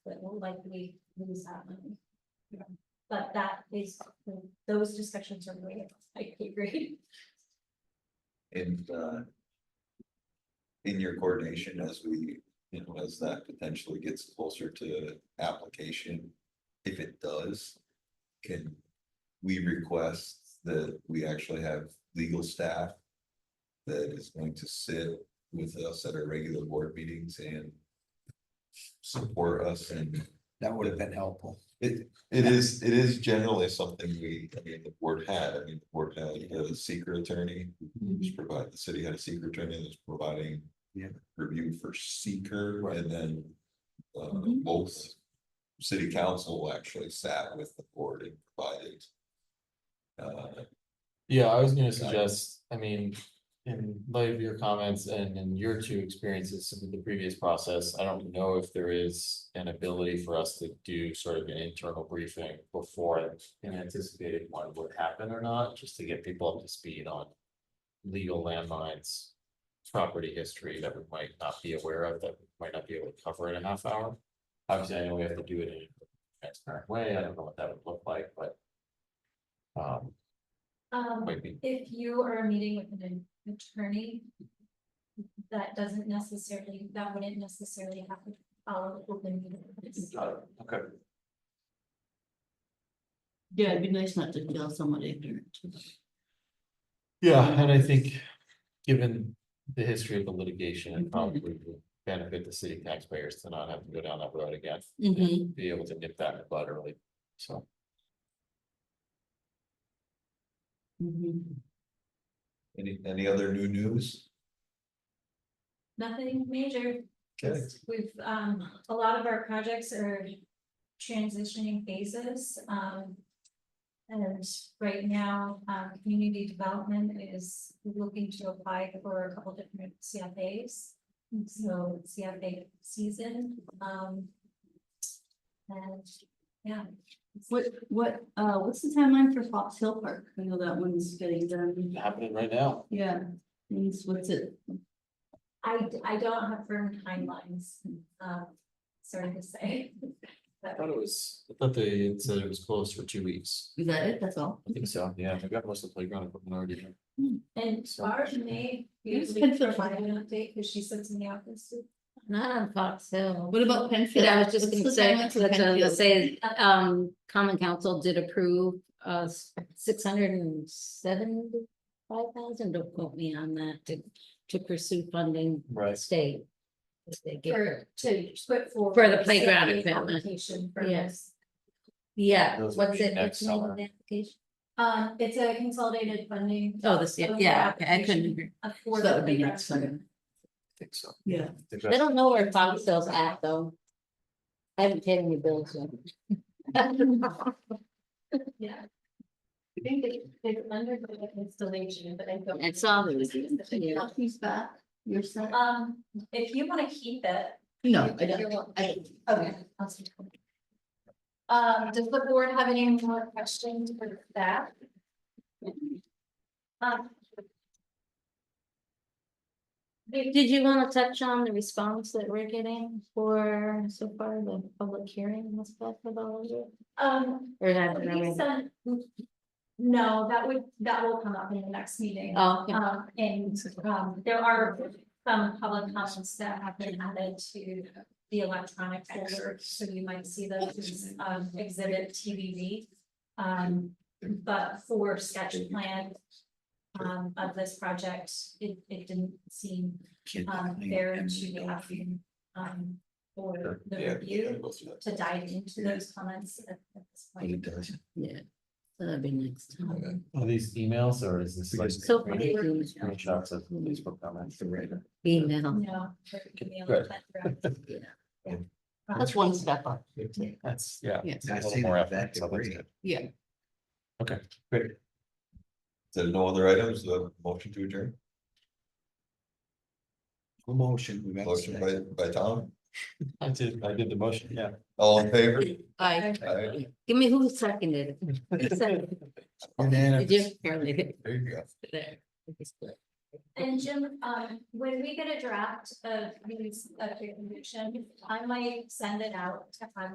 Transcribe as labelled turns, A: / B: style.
A: likely lose that money. But that is, those discussions are way, I agree.
B: And uh. In your coordination as we, you know, as that potentially gets closer to application, if it does. Can we request that we actually have legal staff? That is going to sit with us at our regular board meetings and. Support us and
C: That would have been helpful.
B: it, it is, it is generally something we, I mean, the board had, I mean, the board had a secret attorney. Just provide, the city had a secret attorney that's providing.
C: Yeah.
B: Review for seeker
C: Right.
B: and then. Uh,
A: Mhm.
B: both. City council actually sat with the board and provided. Uh,
D: Yeah, I was gonna
B: Got it.
D: suggest, I mean, in light of your comments and in your two experiences in the previous process, I don't know if there is an ability for us to do sort of an internal briefing before an anticipated one would happen or not, just to get people up to speed on legal landmines, property history that we might not be aware of, that we might not be able to cover in a half hour. Obviously, I know we have to do it in a transparent way. I don't know what that would look like, but um,
A: Um,
D: might be
A: if you are meeting with an attorney. That doesn't necessarily, that wouldn't necessarily have to follow open meeting. laws.
D: okay.
E: Yeah, it'd be nice not to kill someone ignorant.
D: Yeah, and I think, given the history of the litigation, it probably would benefit the city taxpayers to not have to go down that road again. and
E: Mhm.
D: Be able to nip that in the bud early, so.
E: Mhm.
B: any, any other new news?
A: Nothing major.
B: Okay,
A: We've, um, a lot of our projects are transitioning phases, um. And right now, um, community development is looking to apply for a couple different CFAs. So it's CFA season, um. And, yeah.
E: What, what, uh, what's the timeline for Fox Hill Park? I know that one's getting done.
D: Happening right now.
E: Yeah, means what's it?
A: I, I don't have firm timelines, um, sorry to say.
D: I thought it was, I thought they had said it was closed for two weeks.
E: Is that it? That's all?
D: I think so, yeah, we got most of the playground equipment already. here.
A: And Barb may
E: Yes,
A: usually
E: Penfield.
A: provide an update, because she sits in the office.
F: Not on Fox Hill.
E: What about Penfield?
F: But I was just
E: What's
F: gonna
E: the
F: say,
E: timeline
F: that's
E: for
F: what I was gonna
E: Penfield?
F: say, um, common council did approve uh six hundred and seventy-five thousand, don't quote me on that, to to pursue funding
D: Right.
F: state. if they get
A: Or to put forward.
F: For the playground
A: a
F: equipment.
A: application for this.
F: Yes. Yeah,
D: Those
F: what's
D: will be
F: it,
D: next
F: what's the name
D: summer.
F: of the application?
A: Um, it's a consolidated funding.
F: Oh, this, yeah, yeah, okay, I couldn't, agree.
E: So That would be next time.
D: Think so.
E: Yeah.
D: Think
F: I
D: that's-
F: don't know where Fox Hill's at, though. I haven't paid any bills yet.
A: Yeah. I think they, they under the installation, but I don't.
F: I
E: um,
F: saw there was even- yeah.
E: He's back. You're set.
A: Um, if you wanna keep it.
E: No, I
A: You're
E: don't.
A: welcome.
E: I-
A: Okay. I'll see. Um, does the board have any more questions for staff? Um,
F: Did you wanna touch on the response that we're getting for so far the public hearing aspect of all of it?
A: Um,
F: Or have
A: we sent- No, that would, that will come up in the next meeting.
F: Oh, okay.
A: Um, and, um, there are some public comments that have been added to the electronic folder, so you might see those as, um, exhibit TBV. Um, but for sketch plan, um, of this project, it, it didn't seem, um, fair to the applicant, um, for the
B: Yeah, we gotta
A: review
B: go through that.
A: to dive into those comments at at this point.
B: It does.
F: yeah, that'd be next
B: Okay.
F: time.
D: Are these emails or is this like?
F: So far,
D: screen-
F: it's been
D: Screenshots of Facebook comments.
F: Email,
A: No. we're gonna be able
D: Good.
A: to cut through. Yeah.
F: that's one step up.
D: That's, yeah.
E: Yeah.
D: it's a
C: I
D: little
C: see
D: more
C: that
D: effort,
C: that
D: so that's
C: degree.
D: good.
E: Yeah.
D: Okay, great.
B: There are no other items, the motion to adjourn,
C: Motion. we got a
B: motion by,
C: second.
B: by Tom,
D: I did, I did the motion, yeah.
B: all in favor?
F: I,
B: Aye.
F: give me who seconded it. Who seconded it?
C: And then
F: Did you? Apparently,
B: There you go.
F: there. It's good.
A: And Jim, um, when we get a draft of these, of your conviction, I might send it out to, um,